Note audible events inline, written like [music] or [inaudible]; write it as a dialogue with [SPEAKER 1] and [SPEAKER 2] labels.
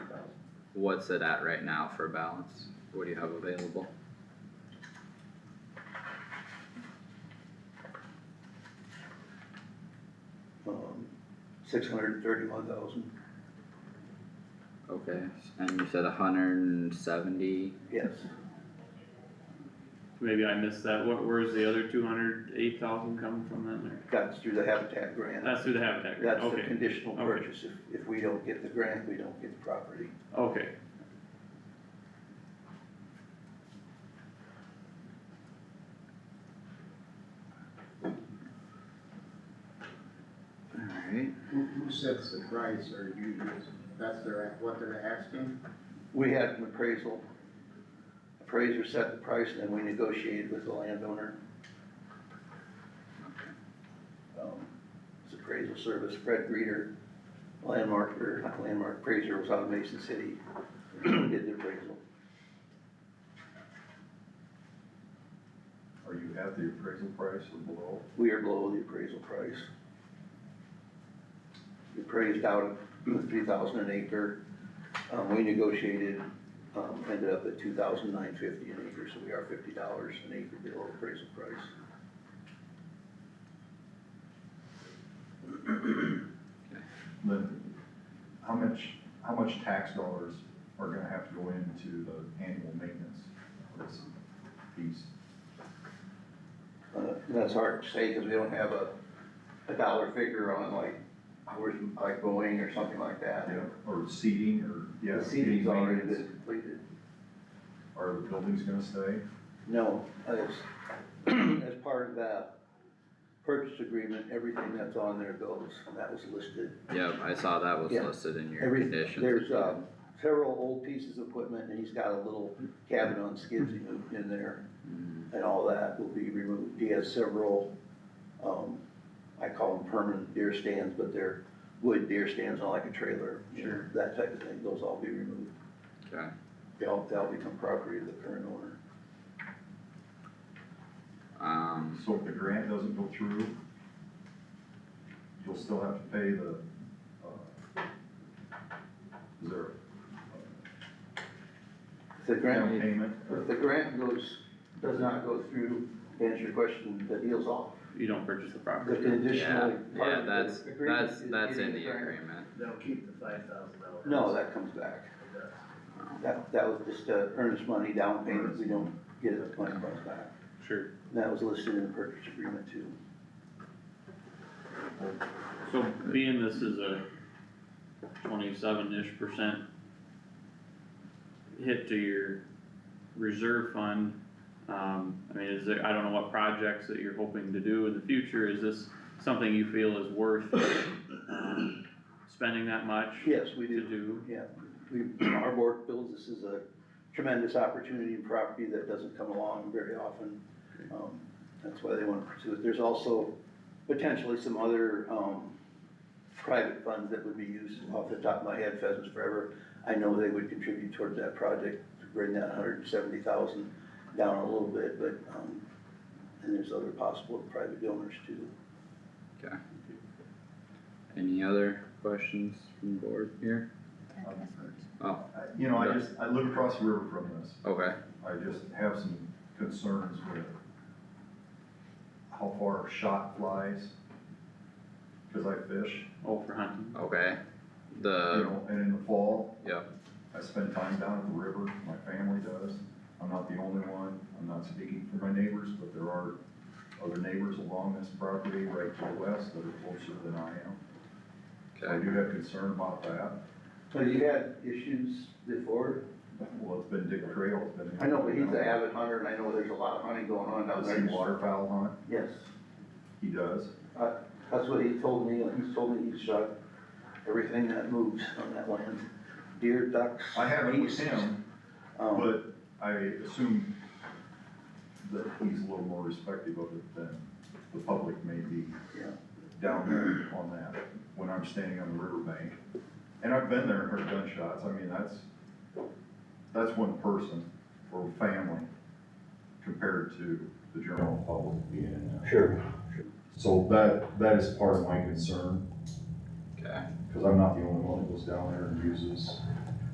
[SPEAKER 1] What's it at right now for balance? What do you have available?
[SPEAKER 2] um, six hundred and thirty-one thousand,
[SPEAKER 1] Okay, and you said hundred and seventy,
[SPEAKER 2] yes.
[SPEAKER 3] Maybe I missed that, what, where's the other two hundred eight thousand coming from then, or,
[SPEAKER 2] That's through the Habitat grant.
[SPEAKER 3] that's through the Habitat, grant.
[SPEAKER 2] That's the
[SPEAKER 3] okay,
[SPEAKER 2] conditional
[SPEAKER 3] okay.
[SPEAKER 2] purchase. If, if we don't get the grant, we don't get the property.
[SPEAKER 3] okay,
[SPEAKER 1] alright,
[SPEAKER 4] Who, who sets the price or you, that's their, what they're asking?
[SPEAKER 2] We had an appraisal. Appraiser set the price and then we negotiated with the landowner. Um, It's appraisal service, Fred Reeder, landmark, or not landmark, appraiser was out of Mason City, [clears throat] did the appraisal.
[SPEAKER 5] Are you at the appraisal price or below?
[SPEAKER 2] We are below the appraisal price. We appraised out at three thousand an acre, um, we negotiated, um, ended up at two thousand nine fifty an acre, so we are fifty dollars an acre below appraisal price.
[SPEAKER 5] Then, how much, how much tax dollars are gonna have to go into the annual maintenance of this piece?
[SPEAKER 2] Uh, that's hard to say, cause we don't have a, a dollar figure on like, hours like Boeing or something like that.
[SPEAKER 5] Or seating, or, yeah.
[SPEAKER 2] The seeding's already been
[SPEAKER 5] maintenance.
[SPEAKER 2] completed.
[SPEAKER 5] Are the buildings gonna stay?
[SPEAKER 2] No, as, as part of that purchase agreement, everything that's on there goes, and that was listed.
[SPEAKER 1] yep, I saw that was
[SPEAKER 2] Yeah.
[SPEAKER 1] listed in your
[SPEAKER 2] Every-
[SPEAKER 1] conditions.
[SPEAKER 2] There's, uh, several old pieces of equipment, and he's got a little cabin on skids he moved in there,
[SPEAKER 1] Mm,
[SPEAKER 2] and all that will be removed. He has several, um, I call them permanent deer stands, but they're wood deer stands on like a trailer. you know,
[SPEAKER 3] Sure.
[SPEAKER 2] That type of thing, those all be removed.
[SPEAKER 1] Okay,
[SPEAKER 2] They'll, they'll become property of the current owner.
[SPEAKER 1] um,
[SPEAKER 5] So if the grant doesn't go through, you'll still have to pay the, uh, is there
[SPEAKER 2] If the
[SPEAKER 5] a down
[SPEAKER 2] grant,
[SPEAKER 5] payment?
[SPEAKER 2] if the grant goes, does not go through, to answer your question, the deal's off.
[SPEAKER 3] you don't purchase the
[SPEAKER 2] The
[SPEAKER 3] property.
[SPEAKER 1] yeah,
[SPEAKER 2] conditional part
[SPEAKER 1] yeah,
[SPEAKER 2] of the
[SPEAKER 1] that's,
[SPEAKER 2] agreement
[SPEAKER 1] that's,
[SPEAKER 2] is
[SPEAKER 1] that's in
[SPEAKER 2] getting
[SPEAKER 1] the
[SPEAKER 2] grant.
[SPEAKER 1] agreement,
[SPEAKER 6] They'll keep the five thousand dollars.
[SPEAKER 2] No, that comes back.
[SPEAKER 1] Um,
[SPEAKER 2] That, that was just uh, earnest money down payment, we don't get it, money comes back.
[SPEAKER 3] Sure,
[SPEAKER 2] And That was listed in the purchase agreement too.
[SPEAKER 3] so being this is a twenty-seven-ish percent hit to your reserve fund, um, I mean, is there, I don't know what projects that you're hoping to do in the future, is this something you feel is worth, um, spending that much?
[SPEAKER 2] Yes, we
[SPEAKER 3] To
[SPEAKER 2] do,
[SPEAKER 3] do,
[SPEAKER 2] yeah. We, [clears throat] our board feels this is a tremendous opportunity and property that doesn't come along very often. Um, That's why they want to pursue it. There's also potentially some other, um, private funds that would be used off the top of my head, Pheasants Forever. I know they would contribute towards that project to bring that hundred and seventy thousand down a little bit, but, um, and there's other possible private donors too.
[SPEAKER 1] any other questions from board here? Oh,
[SPEAKER 5] I- Uh, You know, I just, I live across the river from this.
[SPEAKER 1] okay,
[SPEAKER 5] I just have some concerns with how far a shot flies, cause I fish,
[SPEAKER 3] oh, for hunting,
[SPEAKER 1] okay,
[SPEAKER 5] you
[SPEAKER 1] the,
[SPEAKER 5] know, and in the fall,
[SPEAKER 1] yep,
[SPEAKER 5] I spend time down at the river, my family does. I'm not the only one, I'm not speaking for my neighbors, but there are other neighbors along this property right to the west that are closer than I am. So I
[SPEAKER 1] okay,
[SPEAKER 5] do have concern about that,
[SPEAKER 2] So you had issues before
[SPEAKER 5] well, it's been Dick Trail, it's been.
[SPEAKER 2] I know, but he's an avid hunter, and I know there's a lot of hunting going on down
[SPEAKER 5] Does he
[SPEAKER 2] there.
[SPEAKER 5] waterfowl hunt?
[SPEAKER 2] Yes,
[SPEAKER 5] He does.
[SPEAKER 2] that's what he told me, he's told me he's shot everything that moves on that land, deer, ducks.
[SPEAKER 5] I haven't with
[SPEAKER 2] geese,
[SPEAKER 5] him,
[SPEAKER 2] um,
[SPEAKER 5] But I assume that he's a little more respective of it than the public may be
[SPEAKER 2] Yeah.
[SPEAKER 5] down there on that, when I'm standing on the riverbank. And I've been there and heard gunshots, I mean, that's, that's one person or family compared to the general public being in there.
[SPEAKER 7] Sure.
[SPEAKER 5] So that, that is part of my concern,
[SPEAKER 1] okay,
[SPEAKER 5] because I'm not the only one that goes down there and uses